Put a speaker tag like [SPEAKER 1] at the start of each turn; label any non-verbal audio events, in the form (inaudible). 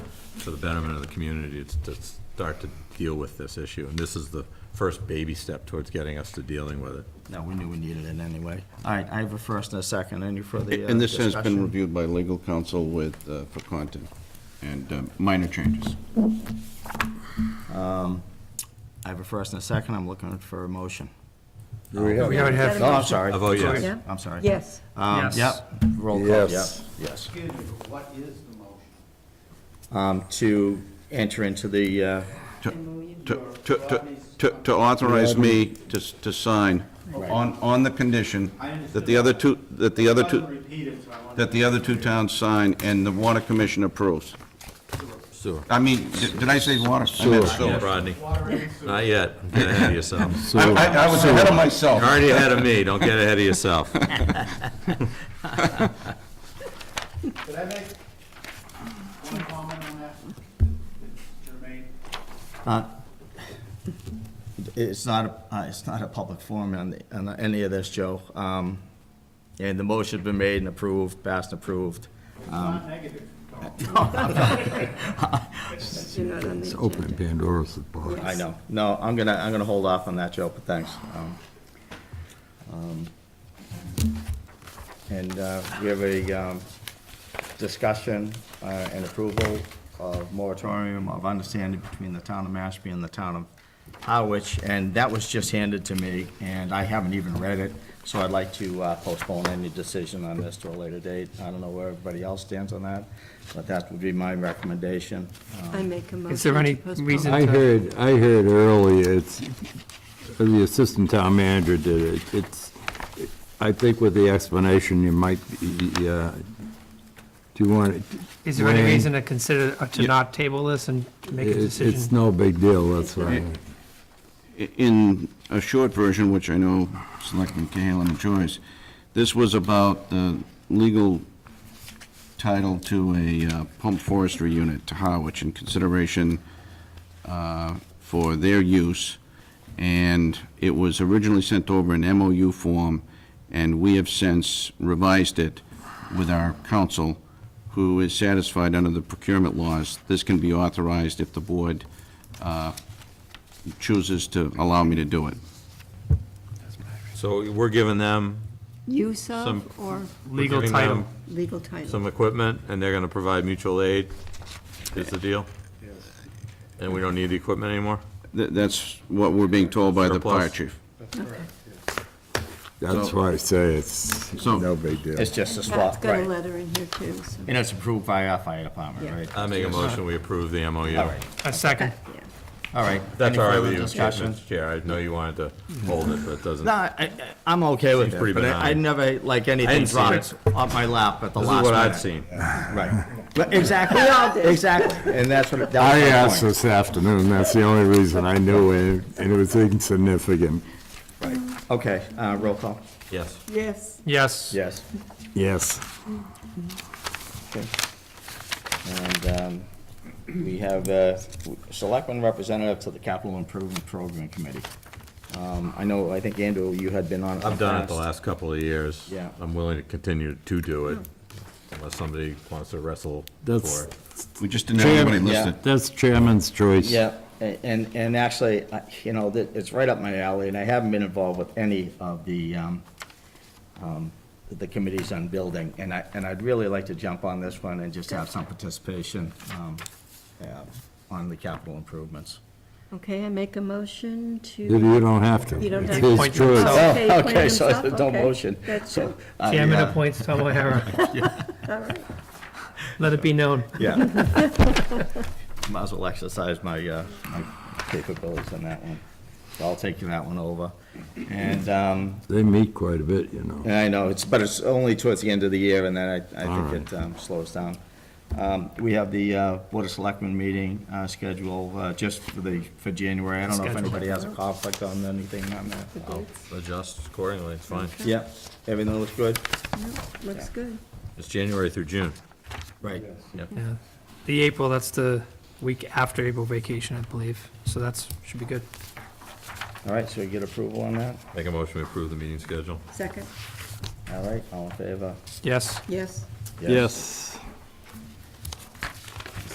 [SPEAKER 1] for the betterment of the community to- to start to deal with this issue. And this is the first baby step towards getting us to dealing with it.
[SPEAKER 2] No, we knew we needed it anyway. All right, I have a first and a second. Any further uh, discussion?
[SPEAKER 3] And this has been reviewed by legal counsel with, uh, for content and uh, minor changes.
[SPEAKER 2] I have a first and a second. I'm looking for a motion.
[SPEAKER 4] We already have.
[SPEAKER 2] Oh, I'm sorry.
[SPEAKER 1] I vote yes.
[SPEAKER 5] Yeah.
[SPEAKER 2] I'm sorry.
[SPEAKER 5] Yes.
[SPEAKER 2] Um,
[SPEAKER 4] Yes.
[SPEAKER 2] Yep, roll call, yep,
[SPEAKER 6] Yes.
[SPEAKER 2] yes.
[SPEAKER 7] Excuse me, but what is the motion?
[SPEAKER 2] Um, To enter into the, uh,
[SPEAKER 3] To, to, to- to, to authorize me to, s- to sign on, on the condition
[SPEAKER 7] I understand.
[SPEAKER 3] that the other two, that the other
[SPEAKER 7] It wasn't
[SPEAKER 3] two,
[SPEAKER 7] repeated, so I wanted
[SPEAKER 3] that the other two towns sign and the water commission approves.
[SPEAKER 1] Sewer.
[SPEAKER 3] I mean, did did I say water? I meant
[SPEAKER 1] Yeah,
[SPEAKER 3] sewer.
[SPEAKER 1] Rodney,
[SPEAKER 7] Water and sewer.
[SPEAKER 1] not yet. Don't Get ahead of yourself.
[SPEAKER 3] I, I I was ahead of myself.
[SPEAKER 1] You're already ahead of me. Don't get ahead of yourself.
[SPEAKER 7] Could I make one comment on that? It's germane.
[SPEAKER 2] it's not, a- uh, it's not a public forum on, the- on any of this, Joe. Um, And the motion's been made and approved, passed and approved.
[SPEAKER 7] It's not negative.
[SPEAKER 3] Uh,
[SPEAKER 7] Carl.
[SPEAKER 5] You're not on the
[SPEAKER 6] It's opening
[SPEAKER 5] agenda.
[SPEAKER 6] Pandora's box.
[SPEAKER 2] I know. No, I'm gonna, I'm gonna hold off on that, Joe, but thanks. Um, um, And uh, we have a um, discussion uh, and approval of moratorium of understanding between the town of Mashpee and the town of Harwich, and that was just handed to me, and I haven't even read it, so I'd like to uh, postpone any decision on this to a later date. I don't know where everybody else stands on that, but that would be my recommendation.
[SPEAKER 5] I make a motion.
[SPEAKER 4] Is there any
[SPEAKER 5] to postpone.
[SPEAKER 4] reason-
[SPEAKER 6] I heard, I heard earlier, it's, the assistant town manager did it, it's, I think with the explanation, you might, be, uh, do you want? it-
[SPEAKER 4] Is there any
[SPEAKER 6] Wayne,
[SPEAKER 4] reason to consider, uh, to not table this and to make a
[SPEAKER 6] it's- It's
[SPEAKER 4] decision?
[SPEAKER 6] no big deal, that's why.
[SPEAKER 3] In a short version, which I know Selectman Cahalan enjoys, this was about the legal title to a uh, pump forestry unit to Harwich in consideration uh, for their use, and it was originally sent over in MOU form, and we have since revised it with our counsel, who is satisfied under the procurement laws, this can be authorized if the board uh, chooses to allow me to do it.
[SPEAKER 1] So we're giving them,
[SPEAKER 5] Use
[SPEAKER 1] Some-
[SPEAKER 5] of or
[SPEAKER 1] we're
[SPEAKER 4] Legal
[SPEAKER 1] giving
[SPEAKER 4] title.
[SPEAKER 1] them
[SPEAKER 5] legal title?
[SPEAKER 1] some equipment, and they're gonna provide mutual aid, is the deal? And we don't need the equipment anymore?
[SPEAKER 3] Th- That's what we're being told by the fire
[SPEAKER 1] Surplus.
[SPEAKER 3] chief.
[SPEAKER 6] That's
[SPEAKER 3] So-
[SPEAKER 6] why I say it's
[SPEAKER 3] So-
[SPEAKER 6] no big deal.
[SPEAKER 2] It's just a
[SPEAKER 5] Pat's
[SPEAKER 2] swap,
[SPEAKER 5] got a
[SPEAKER 2] right.
[SPEAKER 5] letter in here too, so.
[SPEAKER 2] And it's approved by our fire department,
[SPEAKER 5] Yeah.
[SPEAKER 2] right?
[SPEAKER 1] I make a motion, we approve the MOU.
[SPEAKER 2] All right,
[SPEAKER 4] A second.
[SPEAKER 5] Pat, yeah.
[SPEAKER 2] all right.
[SPEAKER 1] That's
[SPEAKER 2] Any
[SPEAKER 1] all right
[SPEAKER 2] further
[SPEAKER 1] with you,
[SPEAKER 2] discussion?
[SPEAKER 1] Mr. Chair, I know you wanted to hold it, but it doesn't.
[SPEAKER 2] No, I, I- I'm okay with
[SPEAKER 1] Seems
[SPEAKER 2] it,
[SPEAKER 1] pretty
[SPEAKER 2] but I I
[SPEAKER 1] benign.
[SPEAKER 2] never, like,
[SPEAKER 1] I
[SPEAKER 2] anything
[SPEAKER 1] didn't see
[SPEAKER 2] dropped off my lap at the
[SPEAKER 1] This
[SPEAKER 2] last
[SPEAKER 1] is
[SPEAKER 2] minute.
[SPEAKER 1] what I've seen.
[SPEAKER 2] Right. But exactly, (laughs) exactly, and that's what, that
[SPEAKER 6] I
[SPEAKER 2] was my
[SPEAKER 6] asked
[SPEAKER 2] point.
[SPEAKER 6] this afternoon, that's the only reason I knew it, and it was insignificant,
[SPEAKER 2] Okay, uh, roll call.
[SPEAKER 1] Yes.
[SPEAKER 5] Yes,
[SPEAKER 4] Yes.
[SPEAKER 2] Yes.
[SPEAKER 6] yes.
[SPEAKER 2] And um, we have uh, Selectman Representative to the Capital Improvement Program Committee. Um, I know, I think, Andrew, you had been on. in
[SPEAKER 1] I've done it the
[SPEAKER 2] past.
[SPEAKER 1] last couple of years.
[SPEAKER 2] Yeah.
[SPEAKER 1] I'm willing to continue to do it unless somebody wants to wrestle for
[SPEAKER 6] That's-
[SPEAKER 1] it.
[SPEAKER 3] We just didn't have anybody
[SPEAKER 2] Chairman,
[SPEAKER 3] listed.
[SPEAKER 6] That's chairman's choice.
[SPEAKER 2] Yeah, a- and, and actually, I- you know, that- it's right up my alley, and I haven't been involved with any of the, um, um, the committees on building, and I, and I'd really like to jump on this one and just have some participation um, uh, on the capital improvements.
[SPEAKER 5] okay, I make a motion to.
[SPEAKER 6] You don't have to.
[SPEAKER 5] You don't
[SPEAKER 6] It's
[SPEAKER 5] have to.
[SPEAKER 6] his
[SPEAKER 4] Point
[SPEAKER 6] choice.
[SPEAKER 4] yourself.
[SPEAKER 5] Okay,
[SPEAKER 2] Oh,
[SPEAKER 5] Quinn
[SPEAKER 2] okay, so
[SPEAKER 5] himself,
[SPEAKER 2] there's no
[SPEAKER 5] okay.
[SPEAKER 2] motion.
[SPEAKER 5] That's
[SPEAKER 2] So,
[SPEAKER 5] it.
[SPEAKER 2] uh,
[SPEAKER 4] Chairman
[SPEAKER 2] yeah,
[SPEAKER 4] appoints Tom O'Hara.
[SPEAKER 5] All right.
[SPEAKER 4] Let it be known.
[SPEAKER 2] Yeah. (laughs) Might as well exercise my, uh, my capabilities on that one. So I'll take that one over. And, um,
[SPEAKER 6] They meet quite a bit, you know.
[SPEAKER 2] And I know, it's, but it's only towards the end of the year, and then I, I
[SPEAKER 6] All
[SPEAKER 2] think it um, slows down. Um, We have the uh, Board of Selectmen meeting uh, scheduled uh, just for the, for January. I don't know if
[SPEAKER 4] Scheduled.
[SPEAKER 2] anybody has a conflict on anything on that.
[SPEAKER 5] Good.
[SPEAKER 1] Adjust accordingly, it's fine.
[SPEAKER 2] Yep, everything looks good?
[SPEAKER 5] Yep, Looks good.
[SPEAKER 1] It's January through June.
[SPEAKER 2] Right.
[SPEAKER 4] Yeah. The April, that's the week after April vacation, I believe. So that's, should be good.
[SPEAKER 2] All right, so we get approval on that?
[SPEAKER 1] Make a motion to approve the meeting schedule.
[SPEAKER 5] Second,
[SPEAKER 2] All right, all in favor?
[SPEAKER 4] Yes.
[SPEAKER 5] yes.
[SPEAKER 6] Yes.